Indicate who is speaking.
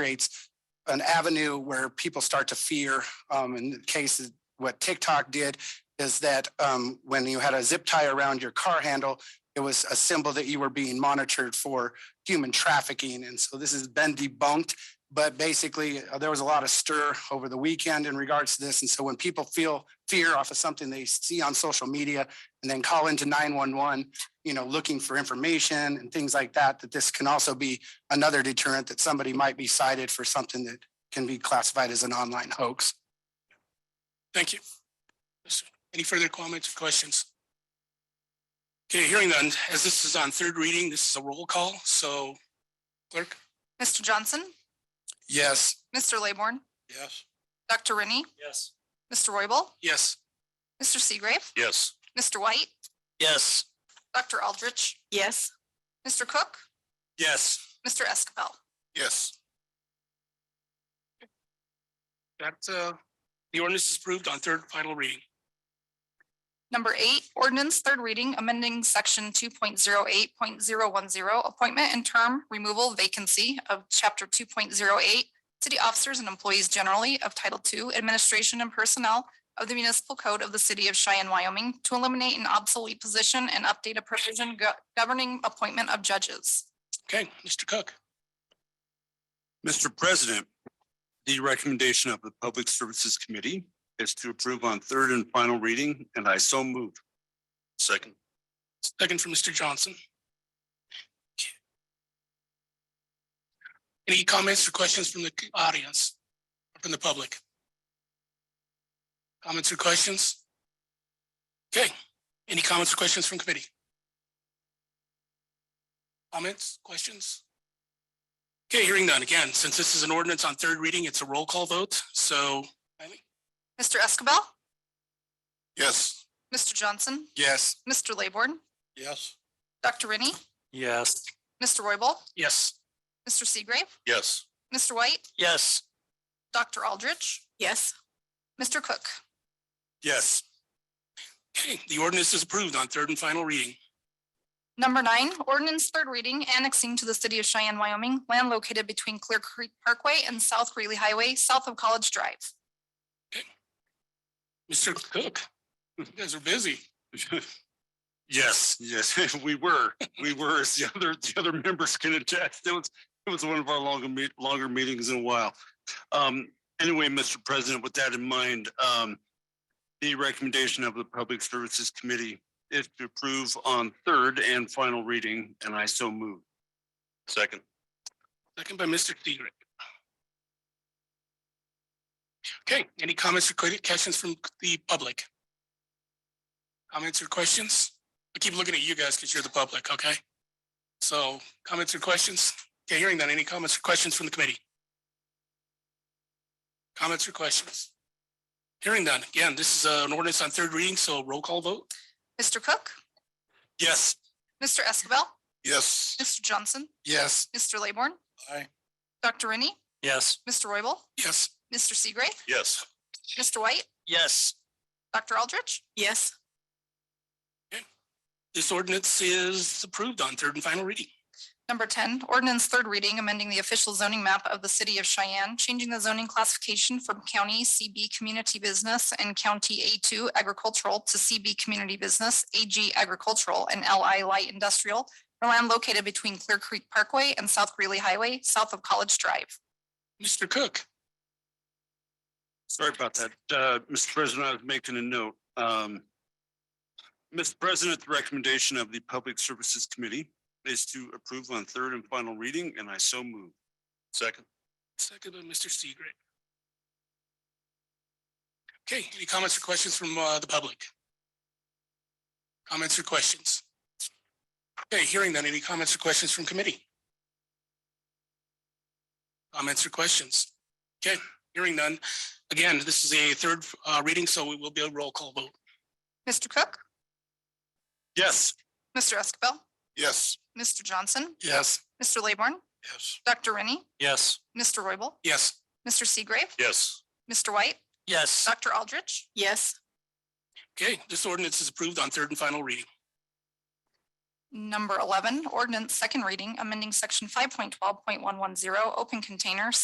Speaker 1: creates an avenue where people start to fear. Um, in the case of what TikTok did is that um, when you had a zip tie around your car handle, it was a symbol that you were being monitored for human trafficking. And so this has been debunked. But basically, uh, there was a lot of stir over the weekend in regards to this. And so when people feel fear off of something they see on social media and then call into 911, you know, looking for information and things like that, that this can also be another deterrent that somebody might be cited for something that can be classified as an online hoax.
Speaker 2: Thank you. Any further comments or questions? Okay, hearing none, as this is on third reading, this is a roll call, so clerk?
Speaker 3: Mr. Johnson,
Speaker 2: Yes.
Speaker 3: Mr. Laborn,
Speaker 2: Yes.
Speaker 3: Dr. Rennie,
Speaker 2: Yes.
Speaker 3: Mr. Royball,
Speaker 2: Yes.
Speaker 3: Mr. Seagrave,
Speaker 2: Yes.
Speaker 3: Mr. White,
Speaker 2: Yes.
Speaker 3: Dr. Aldrich,
Speaker 4: Yes.
Speaker 3: Mr. Cook,
Speaker 2: Yes.
Speaker 3: Mr. Escabel.
Speaker 2: Yes. That, uh, the ordinance is approved on third and final reading.
Speaker 3: Number eight, ordinance, third reading, amending section two point zero eight point zero one zero, appointment and term removal vacancy of chapter two point zero eight, city officers and employees generally of Title II Administration and Personnel of the Municipal Code of the City of Cheyenne, Wyoming, to eliminate an obsolete position and update a provision go- governing appointment of judges.
Speaker 2: Okay, Mr. Cook?
Speaker 5: Mr. President, the recommendation of the Public Services Committee is to approve on third and final reading, and I so move. Second.
Speaker 2: Second from Mr. Johnson. Any comments or questions from the audience, or from the public? Comments or questions? Okay, any comments or questions from committee? Comments, questions? Okay, hearing none. Again, since this is an ordinance on third reading, it's a roll call vote, so.
Speaker 3: Mr. Escabel,
Speaker 2: Yes.
Speaker 3: Mr. Johnson,
Speaker 2: Yes.
Speaker 3: Mr. Laborn,
Speaker 2: Yes.
Speaker 3: Dr. Rennie,
Speaker 2: Yes.
Speaker 3: Mr. Royball,
Speaker 2: Yes.
Speaker 3: Mr. Seagrave,
Speaker 5: Yes.
Speaker 3: Mr. White,
Speaker 2: Yes.
Speaker 3: Dr. Aldrich,
Speaker 4: Yes.
Speaker 3: Mr. Cook.
Speaker 5: Yes.
Speaker 2: Okay, the ordinance is approved on third and final reading.
Speaker 3: Number nine, ordinance third reading annexing to the city of Cheyenne, Wyoming, land located between Clear Creek Parkway and South Greeley Highway, south of College Drive.
Speaker 2: Mr. Cook, you guys are busy.
Speaker 5: Yes, yes, we were, we were, as the other, the other members can attest, it was, it was one of our longer meet, longer meetings in a while. Um, anyway, Mr. President, with that in mind, um, the recommendation of the Public Services Committee is to approve on third and final reading, and I so move. Second.
Speaker 2: Second by Mr. Seagrave. Okay, any comments or que- questions from the public? Comments or questions? I keep looking at you guys because you're the public, okay? So comments or questions? Okay, hearing none. Any comments or questions from the committee? Comments or questions? Hearing none. Again, this is uh, an ordinance on third reading, so roll call vote.
Speaker 3: Mr. Cook,
Speaker 5: Yes.
Speaker 3: Mr. Escabel,
Speaker 5: Yes.
Speaker 3: Mr. Johnson,
Speaker 2: Yes.
Speaker 3: Mr. Laborn.
Speaker 2: Aye.
Speaker 3: Dr. Rennie,
Speaker 5: Yes.
Speaker 3: Mr. Royball,
Speaker 2: Yes.
Speaker 3: Mr. Seagrave,
Speaker 5: Yes.
Speaker 3: Mr. White,
Speaker 5: Yes.
Speaker 3: Dr. Aldrich,
Speaker 4: Yes.
Speaker 2: This ordinance is approved on third and final reading.
Speaker 3: Number ten, ordinance third reading, amending the official zoning map of the city of Cheyenne, changing the zoning classification from county CB community business and county A two agricultural to CB community business, AG agricultural and LI light industrial for land located between Clear Creek Parkway and South Greeley Highway, south of College Drive.
Speaker 2: Mr. Cook,
Speaker 5: Sorry about that. Uh, Mr. President, I was making a note. Um, Mr. President, the recommendation of the Public Services Committee is to approve on third and final reading, and I so move. Second.
Speaker 2: second by Mr. Seagrave. Okay, any comments or questions from uh, the public? Comments or questions? Okay, hearing none, any comments or questions from committee? Comments or questions? Okay, hearing none. Again, this is a third uh, reading, so it will be a roll call vote.
Speaker 3: Mr. Cook,
Speaker 5: Yes.
Speaker 3: Mr. Escabel,
Speaker 5: Yes.
Speaker 3: Mr. Johnson,
Speaker 2: Yes.
Speaker 3: Mr. Laborn,
Speaker 5: Yes.
Speaker 3: Dr. Rennie,
Speaker 5: Yes.
Speaker 3: Mr. Royball,
Speaker 2: Yes.
Speaker 3: Mr. Seagrave,
Speaker 5: Yes.
Speaker 3: Mr. White,
Speaker 5: Yes.
Speaker 3: Dr. Aldrich,
Speaker 4: Yes.
Speaker 2: Okay, this ordinance is approved on third and final reading.
Speaker 3: Number eleven, ordinance second reading, amending section five point twelve point one one zero, open container,